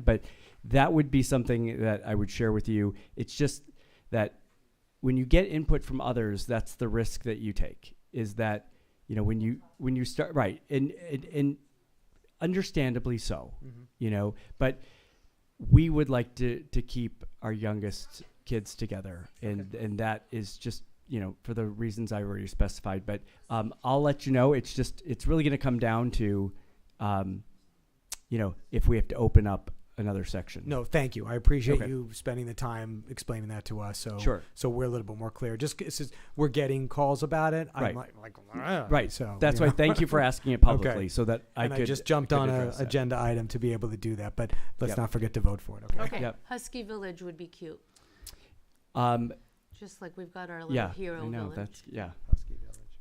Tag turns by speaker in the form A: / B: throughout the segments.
A: but that would be something that I would share with you. It's just that when you get input from others, that's the risk that you take. Is that you know when you when you start right and and, and understandably so, you know. But we would like to to keep our youngest kids together, and and that is just you know for the reasons I already specified. But um, I'll let you know. It's just it's really going to come down to. Um, you know, if we have to open up another section.
B: No, thank you. I appreciate
A: Okay.
B: you spending the time explaining that to us. So
A: Sure.
B: so we're a little bit more clear. Just it's just- we're getting calls about it. I'm
A: Right.
B: like, like "Ah,"
A: Right.
B: So
A: So that's
B: you
A: why.
B: know.
A: Thank you for asking it publicly, so that I
B: and
A: could.
B: I just jumped
A: could
B: on a
A: address that.
B: agenda item to be able to do that. But let's
A: Yep.
B: not forget to vote for it. Okay.
C: Okay,
A: Yep.
C: Husky Village would be cute,
A: Um,
C: just like we've got our little
A: yeah.
C: hero
A: I know
C: village.
A: that's yeah.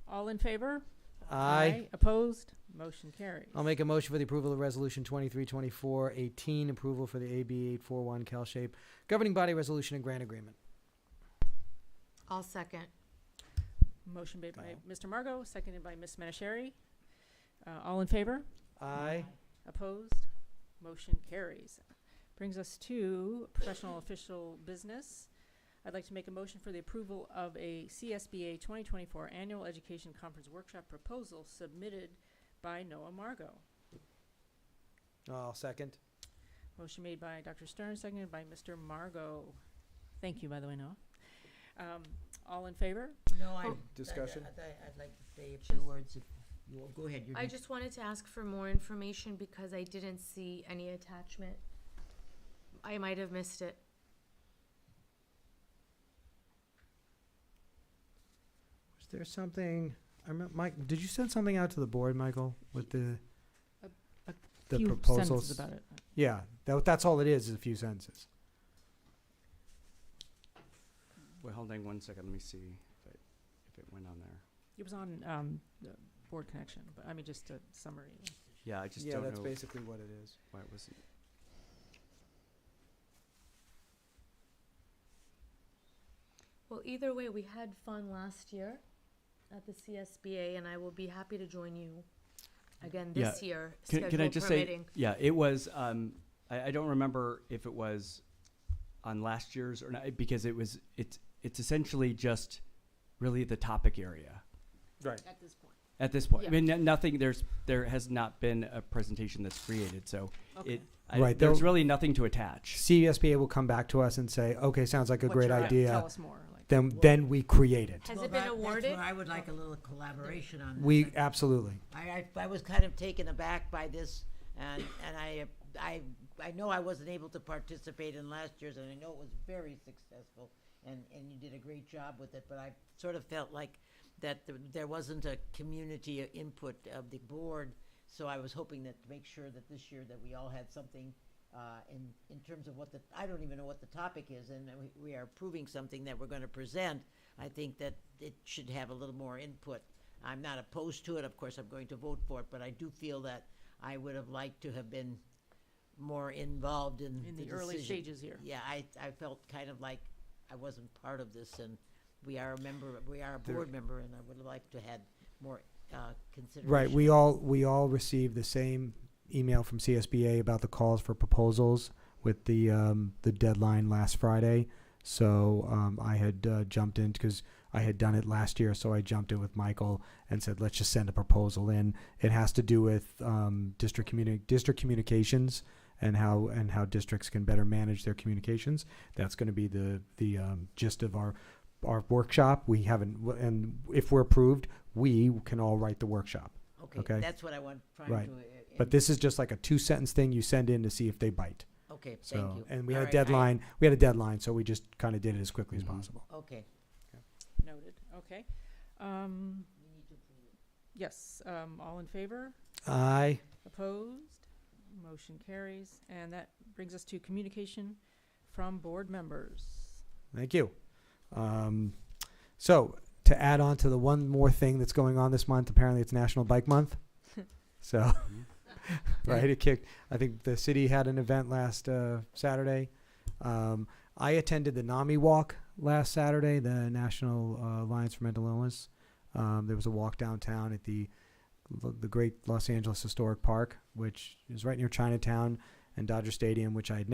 D: All in favor?
B: I
D: Opposed? Motion carries.
B: I'll make a motion for the approval of Resolution 232418, approval for the AB 841 CalShape governing body resolution and grant agreement.
C: I'll second.
D: Motion made by
B: Dial.
D: Mr. Margot, seconded by Ms. Manishari. Uh, all in favor?
B: I
D: Opposed? Motion carries. Brings us to professional official business. I'd like to make a motion for the approval of a CSBA 2024 Annual Education Conference Workshop proposal submitted by Noah Margot.
B: I'll second.
D: Motion made by Dr. Stern, seconded by Mr. Margot. Thank you, by the way, Noah. Um, all in favor?
E: No, I.
C: Oh.
B: Discussion?
E: I- I- I'd like to say a few
C: Just-
E: words. if you- Go ahead. you're
C: I
E: good.
C: just wanted to ask for more information because I didn't see any attachment. I might have missed it.
B: Was there something, I remember, Mike, did you send something out to the board, Michael, with the,
D: A- a
B: the
D: Few
B: proposals?
D: sentences about it.
B: Yeah, that, that's all it is, is a few sentences.
A: Well, hold on one second. Let me see if it, if it went on there.
D: It was on, um, the board connection, but I mean, just a summary.
A: Yeah, I just don't know
B: basically what it is.
A: why it wasn't.
C: Well, either way, we had fun last year at the CSBA, and I will be happy to join you again
A: Yeah.
C: this year.
A: Can, can I
C: schedule
A: just
C: permitting.
A: say? Yeah, it was. Um, I, I don't remember if it was on last year's or not because it was. It's it's essentially just really the topic area
B: Right.
C: At this point.
A: at this point.
C: Yeah.
A: I mean, n- nothing. There's there has not been a presentation that's created, so it. I,
B: Right,
A: There's
B: there-
A: really nothing to attach.
B: CSBA will come back to us and say, okay, sounds like a
D: What's
B: great
D: your- Tell
B: idea.
D: us more, like.
B: Then, then we create it.
C: Has
E: Well,
C: it been
E: that-
C: awarded?
E: That's where I would like a little collaboration on this.
B: We, absolutely.
E: I, I, I was kind of taken aback by this, and, and I, I, I know I wasn't able to participate in last year's, and I know it was very successful, and, and you did a great job with it, but I sort of felt like that th- there wasn't a community uh, input of the board, so I was hoping that, to make sure that this year that we all had something, uh, in, in terms of what the, I don't even know what the topic is, and we, we are approving something that we're gonna present, I think that it should have a little more input. I'm not opposed to it, of course, I'm going to vote for it, but I do feel that I would have liked to have been more involved in
D: In
E: the
D: the early
E: decision.
D: stages here.
E: Yeah, I, I felt kind of like I wasn't part of this, and we are a member, we are a
B: There-
E: board member, and I would have liked to had more, uh, consideration.
B: Right, we all, we all received the same email from CSBA about the calls for proposals with the, um, the deadline last Friday. So, um, I had, uh, jumped in, cause I had done it last year, so I jumped in with Michael and said, let's just send a proposal in. It has to do with, um, district communi- district communications and how, and how districts can better manage their communications. That's gonna be the, the, um, gist of our, our workshop. We haven't, and if we're approved, we can all write the workshop. okay.
E: Okay, that's what I want, trying to.
B: Right.
E: uh,
B: But
E: in-
B: this is just like a two sentence thing you send in to see if they bite.
E: Okay,
B: So,
E: thank you.
B: and we
E: All
B: had a
E: right, I-
B: deadline. we had a deadline, so we just kind of did it as quickly
A: Mhm.
B: as possible.
E: Okay.
D: Noted, okay. Um, yes, um, all in favor?
B: I
D: Opposed? Motion carries. And that brings us to communication from board members.
B: thank you. Um, so to add on to the one more thing that's going on this month, apparently it's National Bike Month. So, right, it kicked. I think the city had an event last uh, Saturday. Um, I attended the NAMI walk last Saturday, the National uh, Alliance for Mental Illness. Um, there was a walk downtown at the the great Los Angeles Historic Park, which is right near Chinatown. and Dodger Stadium, which I had